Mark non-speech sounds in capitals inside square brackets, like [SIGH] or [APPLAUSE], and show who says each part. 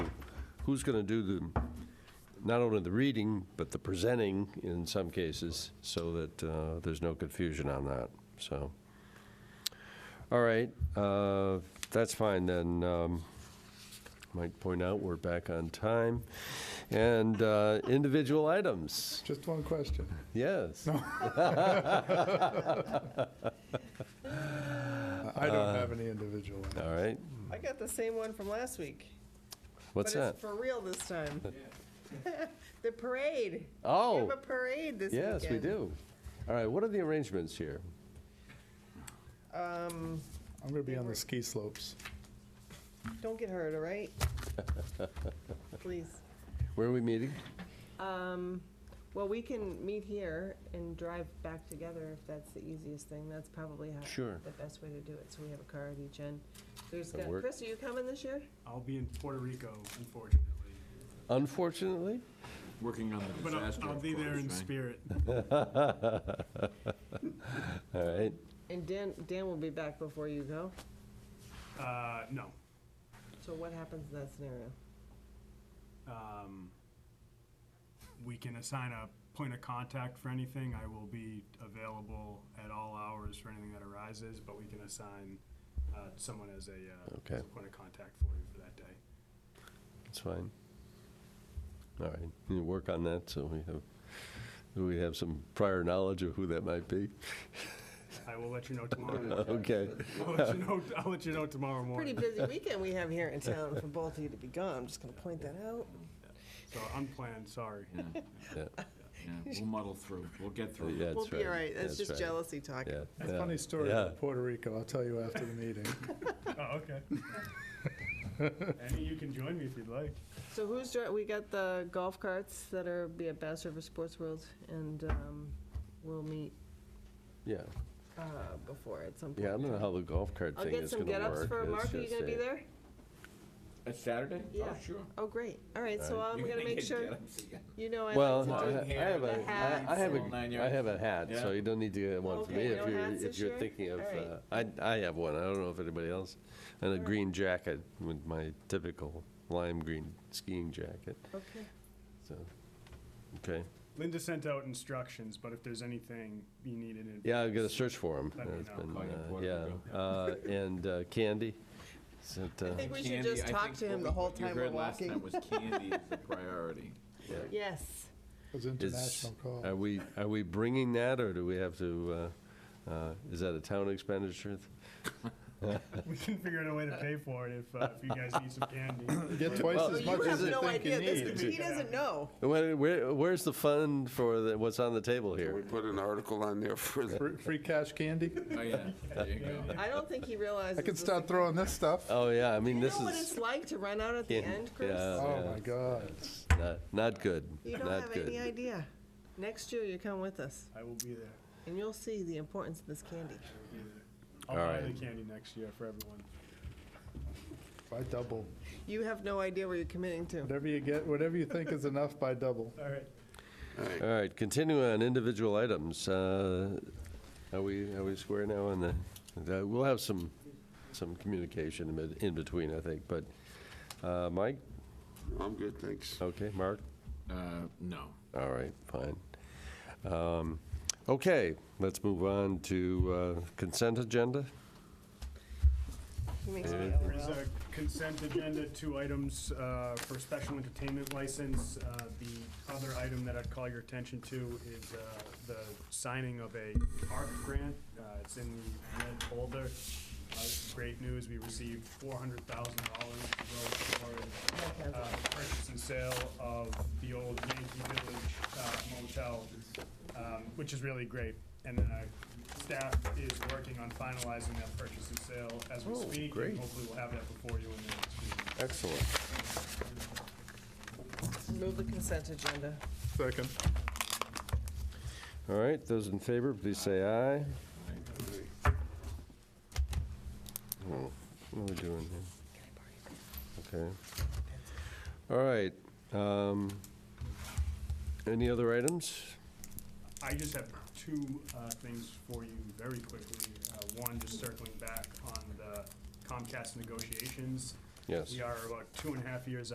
Speaker 1: who's going to do the, not only the reading, but the presenting in some cases, so that uh, there's no confusion on that, so. All right, uh, that's fine then. Um, Might point out, we're back on time. And uh, individual items,
Speaker 2: Just one question.
Speaker 1: yes.
Speaker 2: I
Speaker 1: Uh,
Speaker 2: don't have any individual. one.
Speaker 1: All right,
Speaker 3: I got the same one from last week.
Speaker 1: what's
Speaker 3: but
Speaker 1: that?
Speaker 3: it's for real this time. [LAUGHS] the parade. We
Speaker 1: Oh,
Speaker 3: have a parade this
Speaker 1: yes, we
Speaker 3: weekend.
Speaker 1: do. All right, what are the arrangements here?
Speaker 3: Um,
Speaker 2: I'm going to be on the ski slopes.
Speaker 3: don't get hurt, all right?
Speaker 1: [LAUGHS]
Speaker 3: Please.
Speaker 1: Where are we meeting?
Speaker 3: Um, well, we can meet here and drive back together if that's the easiest thing. That's probably how
Speaker 1: Sure.
Speaker 3: the best way to do it. So we have a car at each end. There's
Speaker 1: That
Speaker 3: got,
Speaker 1: work?
Speaker 3: Chris, are you coming this year?
Speaker 4: I'll be in Puerto Rico, unfortunately.
Speaker 1: Unfortunately?
Speaker 5: Working on the
Speaker 4: But I'll,
Speaker 5: disaster,
Speaker 4: I'll
Speaker 5: of
Speaker 4: be there in
Speaker 5: course, right?
Speaker 4: spirit.
Speaker 1: All right,
Speaker 3: And Dan, Dan will be back before you go.
Speaker 4: Uh, no.
Speaker 3: So what happens in that scenario?
Speaker 4: Um, we can assign a point of contact for anything. I will be available at all hours for anything that arises, but we can assign, uh, someone as a, uh,
Speaker 1: Okay.
Speaker 4: as a point of contact for you for that day.
Speaker 1: that's fine. All right, you work on that, so we have, do we have some prior knowledge of who that might be? [LAUGHS]
Speaker 4: I will let you know tomorrow.
Speaker 1: Okay,
Speaker 4: I'll let you know, I'll let you know tomorrow
Speaker 3: Pretty
Speaker 1: [LAUGHS]
Speaker 4: morning.
Speaker 3: busy weekend we have here in town for both of you to be gone. I'm just gonna point that out.
Speaker 4: So unplanned, sorry.
Speaker 1: yeah,
Speaker 5: Yeah, We'll muddle through, we'll get through.
Speaker 1: yeah, that's right.
Speaker 3: We'll be all right. That's just
Speaker 1: right.
Speaker 3: jealousy talking.
Speaker 1: Yeah,
Speaker 2: A
Speaker 1: yeah,
Speaker 2: funny story
Speaker 1: yeah.
Speaker 2: about Puerto Rico. I'll tell you after the meeting.
Speaker 4: [LAUGHS] Oh, okay. Andy, you can join me if you'd like.
Speaker 3: So who's, dri- we got the golf carts that are, be at Bass River Sports World, and um, we'll meet
Speaker 1: Yeah,
Speaker 3: uh, before at some point.
Speaker 1: yeah, I don't know how the golf cart
Speaker 3: I'll
Speaker 1: thing
Speaker 3: get
Speaker 1: is
Speaker 3: some
Speaker 1: gonna work.
Speaker 3: get-ups for
Speaker 1: It's
Speaker 3: Mark. Are you
Speaker 1: just
Speaker 3: gonna be
Speaker 1: a-
Speaker 3: there?
Speaker 5: That's Saturday?
Speaker 3: Yeah.
Speaker 5: Oh, sure.
Speaker 3: Oh, great. All right, so
Speaker 1: All
Speaker 3: I'm [LAUGHS]
Speaker 5: You're
Speaker 3: gonna make
Speaker 5: get
Speaker 3: sure,
Speaker 5: Adams again.
Speaker 3: you know I like
Speaker 1: Well,
Speaker 3: to
Speaker 1: I
Speaker 3: do.
Speaker 5: Long
Speaker 1: I have
Speaker 5: hair,
Speaker 1: a,
Speaker 3: the
Speaker 1: I- I have
Speaker 5: long nine
Speaker 1: a, I
Speaker 5: yards.
Speaker 1: have a hat, so
Speaker 5: Yeah.
Speaker 1: you don't need to get one for
Speaker 3: Okay,
Speaker 1: me if
Speaker 3: no
Speaker 1: you're,
Speaker 3: hats
Speaker 1: if
Speaker 3: this
Speaker 1: you're
Speaker 3: year?
Speaker 1: thinking of,
Speaker 3: All right.
Speaker 1: uh, I, I have one, I don't know if anybody else. And a green jacket with my typical lime green skiing jacket,
Speaker 3: Okay.
Speaker 1: so, okay.
Speaker 4: Linda sent out instructions, but if there's anything you needed in.
Speaker 1: Yeah, I've got to search for him.
Speaker 4: Let me know.
Speaker 5: Call you Puerto
Speaker 1: Yeah, uh, and uh, Candy, is it,
Speaker 3: I
Speaker 1: uh,
Speaker 3: think we should
Speaker 5: Candy,
Speaker 3: just
Speaker 5: I
Speaker 3: talk
Speaker 5: think
Speaker 3: to him
Speaker 5: what
Speaker 3: the
Speaker 5: we-
Speaker 3: whole
Speaker 5: what you
Speaker 3: time we're
Speaker 5: heard last time
Speaker 3: walking.
Speaker 5: was candy is
Speaker 3: [LAUGHS]
Speaker 5: the priority.
Speaker 3: Yes.
Speaker 2: Those
Speaker 1: is,
Speaker 2: international calls.
Speaker 1: are we, are we bringing that, or do we have to, uh, uh, is that a town expenditure?
Speaker 4: We can figure out a way to pay for it if, uh, if you guys
Speaker 1: [LAUGHS]
Speaker 4: need some candy.
Speaker 2: You get twice
Speaker 1: Well,
Speaker 2: as
Speaker 3: You
Speaker 2: much as
Speaker 3: have
Speaker 2: you
Speaker 3: no
Speaker 2: think you
Speaker 3: idea. This
Speaker 2: need.
Speaker 3: is- He doesn't know.
Speaker 1: Where, where- where's the fund for the- what's on the table here?
Speaker 6: We put an article on there for the
Speaker 2: Free- Free cash candy?
Speaker 5: Oh, yeah, there you go.
Speaker 3: I don't think
Speaker 1: [LAUGHS]
Speaker 3: he realizes.
Speaker 2: I can
Speaker 3: this-
Speaker 2: start throwing this stuff.
Speaker 1: Oh, yeah, I mean,
Speaker 3: You
Speaker 1: this
Speaker 3: know what it's
Speaker 1: is
Speaker 3: like to run out at the
Speaker 1: Yeah,
Speaker 3: end, Chris?
Speaker 1: yeah.
Speaker 2: Oh, my God.
Speaker 1: not, not good,
Speaker 3: You don't
Speaker 1: not
Speaker 3: have any
Speaker 1: good.
Speaker 3: idea. Next year, you come with us,
Speaker 4: I will be there.
Speaker 3: and you'll see the importance of this candy.
Speaker 4: I will be there. I'll
Speaker 1: All
Speaker 4: buy
Speaker 1: right.
Speaker 4: the candy next year for everyone.
Speaker 2: By double.
Speaker 3: You have no idea where you're committing to.
Speaker 2: Whatever you get, whatever you think is enough, by double.
Speaker 4: All right.
Speaker 1: All right, continue on individual items. Uh, Are we, are we square now on the, the- we'll have some, some communication in bet- in between, I think, but, uh, Mike?
Speaker 6: I'm good, thanks.
Speaker 1: Okay, Mark?
Speaker 5: Uh, no.
Speaker 1: All right, fine. Um, Okay, let's move on to uh, consent agenda.
Speaker 3: He makes me
Speaker 1: Yeah.
Speaker 3: laugh.
Speaker 4: There's a consent agenda, two items uh, for special entertainment license. Uh, The other item that I'd call your attention to is uh, the signing of a park grant. Uh, It's in the red folder. Uh, Great news, we received four hundred thousand dollars toward uh, purchase and sale of the old Yankee Village uh, motel, um, which is really great. And then our staff is working on finalizing that purchase and sale as we
Speaker 1: Oh,
Speaker 4: speak. and
Speaker 1: great.
Speaker 4: Hopefully we'll have that before you in the next meeting.
Speaker 1: Excellent.
Speaker 3: Move the consent agenda.
Speaker 2: Second.
Speaker 1: All right, those in favor, please say aye. Oh, What are we doing here? Okay. All right. um, Any other items?
Speaker 4: I just have two uh, things for you very quickly. Uh, One, just circling back on the Comcast negotiations.
Speaker 1: Yes.
Speaker 4: We are about two and a half years